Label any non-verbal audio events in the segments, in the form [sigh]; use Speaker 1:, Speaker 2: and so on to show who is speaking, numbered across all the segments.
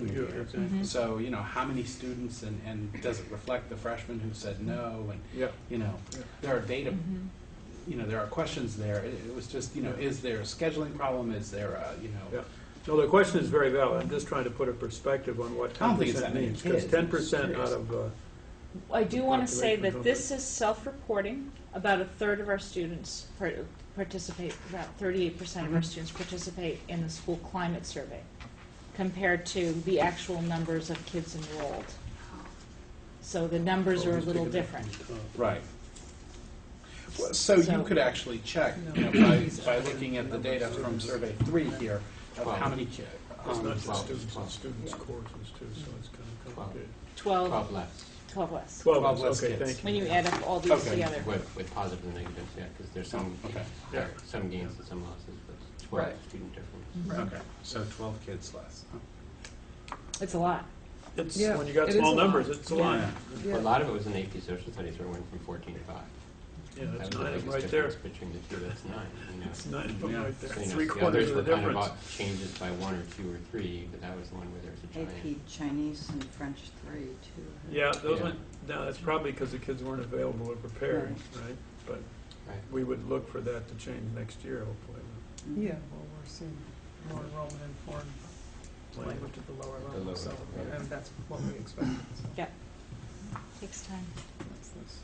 Speaker 1: year.
Speaker 2: Mm-hmm.
Speaker 3: Mhm.
Speaker 1: So, you know, how many students and, and does it reflect the freshmen who said no? And,
Speaker 2: Yeah.
Speaker 1: you know,
Speaker 2: Yeah.
Speaker 1: there are data,
Speaker 3: Mhm.
Speaker 1: you know, there are questions there. It, it was just, you know, is there a scheduling problem? Is there a, you know,
Speaker 2: Yeah. No, the question is very valid. I'm just trying to put a perspective on what
Speaker 1: I
Speaker 2: ten
Speaker 1: don't think it's that
Speaker 2: percent
Speaker 1: many
Speaker 2: means. Because
Speaker 1: kids. I'm just
Speaker 2: ten percent
Speaker 1: curious.
Speaker 2: out of, uh,
Speaker 3: I do want to say
Speaker 2: Population
Speaker 3: that
Speaker 2: growth.
Speaker 3: this is self-reporting. About a third of our students par- participate, about thirty-eight percent of our
Speaker 2: Mhm.
Speaker 3: students participate in the school climate survey compared to the actual numbers of kids enrolled. So the numbers are a little different.
Speaker 1: right? Well, So you
Speaker 3: So-
Speaker 1: could actually check, you know, by, by looking at the data from survey three here of how many um, kids.
Speaker 2: it's not just
Speaker 4: Twelve,
Speaker 2: students,
Speaker 4: twelve.
Speaker 2: it's students' courses too, so it's kind of complicated.
Speaker 3: Twelve,
Speaker 4: Twelve less
Speaker 3: twelve less,
Speaker 2: Twelve,
Speaker 1: Twelve
Speaker 2: is-
Speaker 1: less
Speaker 2: okay,
Speaker 1: kids.
Speaker 2: thank you.
Speaker 3: when you add up all these
Speaker 1: Okay.
Speaker 3: together.
Speaker 4: with, with positive and negatives, yeah, because there's some,
Speaker 1: Okay.
Speaker 4: there are some gains and some losses, but twelve
Speaker 1: Right.
Speaker 4: student difference.
Speaker 3: Mhm.
Speaker 1: Okay, so 12 kids less.
Speaker 3: It's a lot.
Speaker 2: It's,
Speaker 5: Yeah,
Speaker 2: when you got
Speaker 5: it is
Speaker 2: small
Speaker 5: a lot.
Speaker 2: numbers, it's a lot.
Speaker 1: Yeah.
Speaker 4: A lot of it was in AP Social Studies, where it went from fourteen to five.
Speaker 2: Yeah,
Speaker 4: That
Speaker 2: that's
Speaker 4: was the
Speaker 2: nine
Speaker 4: biggest
Speaker 2: right there.
Speaker 4: difference between the two, that's nine, you know.
Speaker 2: It's nine of them
Speaker 1: Yeah.
Speaker 2: right
Speaker 4: So,
Speaker 2: there.
Speaker 4: you know,
Speaker 2: Three
Speaker 4: the
Speaker 2: quarters
Speaker 4: others
Speaker 2: of the
Speaker 4: were kind
Speaker 2: difference.
Speaker 4: about Changes by one or two or three, but that was the one where there was a giant.
Speaker 6: AP Chinese and French three too.
Speaker 2: Yeah, those
Speaker 4: Yeah.
Speaker 2: went, now, that's probably because the kids weren't available or prepared, right? But
Speaker 4: Right.
Speaker 2: we would look for that to change next year, hopefully.
Speaker 5: Yeah, well, we're seeing more enrollment in foreign language at the lower
Speaker 4: At the
Speaker 5: level,
Speaker 4: lower
Speaker 5: so,
Speaker 4: level, yeah.
Speaker 5: and that's what we expected, so.
Speaker 3: Yeah. Takes time.
Speaker 5: that's this.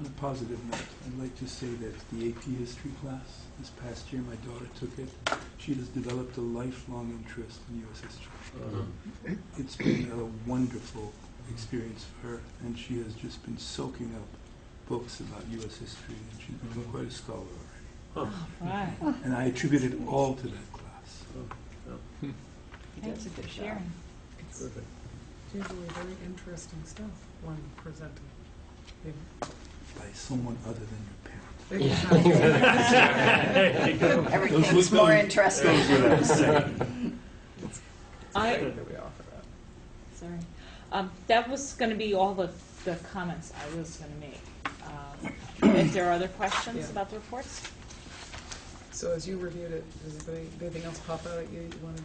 Speaker 7: On a positive note, I'd like to say that the AP history class this past year, my daughter took it. She has developed a lifelong interest in U.S. history.
Speaker 4: Uh-huh.
Speaker 2: Uh,
Speaker 7: It's been a wonderful experience for her, and she has just been soaking up books about U.S. history, and she's become quite a scholar already.
Speaker 3: Wow,
Speaker 7: And I attribute it all to that class.
Speaker 3: thank
Speaker 6: does
Speaker 3: you
Speaker 6: a
Speaker 3: for
Speaker 6: good job.
Speaker 3: sharing.
Speaker 6: It's-
Speaker 2: Terrific.
Speaker 5: It's usually very interesting stuff when presented.
Speaker 7: By someone other than your parents.
Speaker 5: [laughs]
Speaker 7: Those
Speaker 6: Everything's
Speaker 7: look
Speaker 6: more
Speaker 7: really-
Speaker 6: interesting.
Speaker 3: I,
Speaker 5: That we offer that.
Speaker 3: Sorry. Um, that was going to be all the, the comments I was going to make. Um, if there are other questions
Speaker 5: Yeah.
Speaker 3: about the reports,
Speaker 5: So as you reviewed it, does anybody- anything else pop out at you you want to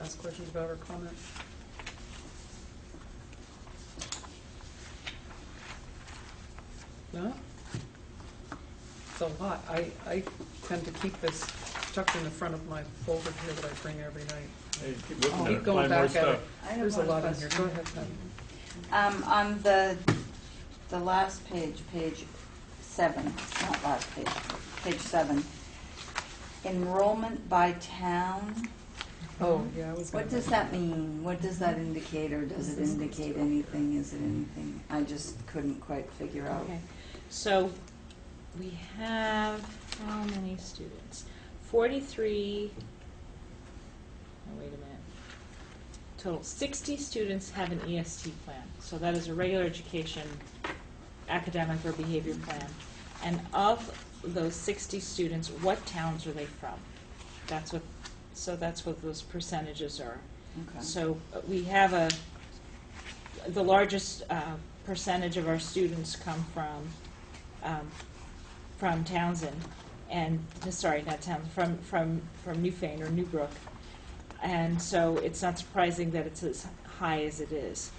Speaker 5: ask questions about or comment? No? It's a lot. I, I tend to keep this tucked in the front of my folder here that I bring every night.
Speaker 2: Hey, keep looking
Speaker 5: I'll
Speaker 2: at it,
Speaker 5: keep going
Speaker 2: find more
Speaker 5: back at it.
Speaker 2: stuff.
Speaker 6: I have
Speaker 5: There's a
Speaker 6: one
Speaker 5: lot in here. Go
Speaker 6: question.
Speaker 5: ahead, Patty.
Speaker 6: Um, on the, the last page, page seven, not last page, page seven, enrollment by town,
Speaker 5: Oh, yeah, I was gonna.
Speaker 6: what does that mean? What does that indicate, or does it indicate anything? Is it anything? I just couldn't quite figure out.
Speaker 3: okay. So we have how many students? 43, oh, wait a minute. Total 60 students have an EST plan. So that is a regular education, academic or behavior plan. And of those 60 students, what towns are they from? That's what, so that's what those percentages are.
Speaker 6: Okay.
Speaker 3: So uh, we have a, the largest uh, percentage of our students come from, um, from Townsend, and, sorry, not Townsend, from, from, from Newfane or Newbrook. And so it's not surprising that it's as high as it is.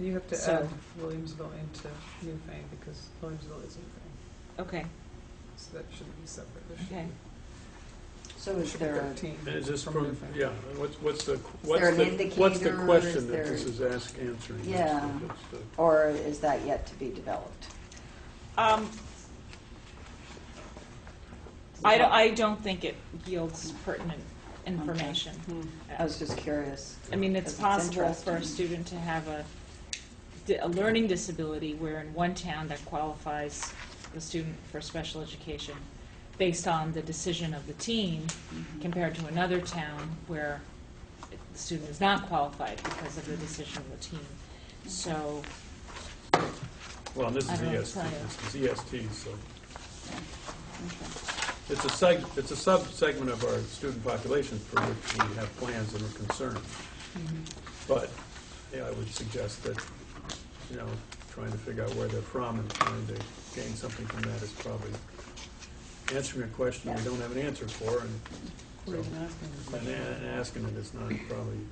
Speaker 5: You have to
Speaker 3: So-
Speaker 5: add Williamsville into Newfane because Williamsville is Newfane,
Speaker 3: Okay,
Speaker 5: so that shouldn't be separate. There should
Speaker 3: okay.
Speaker 5: be-
Speaker 6: So
Speaker 5: there
Speaker 6: is
Speaker 5: should be
Speaker 6: there a
Speaker 5: thirteen
Speaker 2: And is this
Speaker 5: from
Speaker 2: from,
Speaker 5: Newfane.
Speaker 2: yeah, what's, what's the,
Speaker 6: there
Speaker 2: what's
Speaker 6: an
Speaker 2: the, what's the
Speaker 6: indicator? Is
Speaker 2: question that
Speaker 6: there-
Speaker 2: this is ask, answering? That's
Speaker 6: Yeah.
Speaker 2: the- that's the-
Speaker 6: Or is that yet to be developed?
Speaker 3: Um, I, don't- I don't think it yields pertinent information.
Speaker 6: I was just curious.
Speaker 3: I mean, it's
Speaker 6: Because it's
Speaker 3: possible for a
Speaker 6: interesting.
Speaker 3: student to have a, di- a learning disability where in one town that qualifies the student for special education based on the decision of the team compared to another town where the student is not qualified because of the decision of the team. So,
Speaker 2: Well, this
Speaker 3: I
Speaker 2: is
Speaker 3: don't know,
Speaker 2: EST, this is EST, so
Speaker 6: Okay.
Speaker 2: it's a seg, it's a sub-segment of our student population for which we have plans and are concerned.
Speaker 3: Mm-hmm.
Speaker 2: But, yeah, I would suggest that, you know, trying to figure out where they're from and trying to gain something from that is probably answering a question we don't have an answer for and, so,
Speaker 5: Or even asking the
Speaker 2: and
Speaker 5: question.
Speaker 2: and asking it is not probably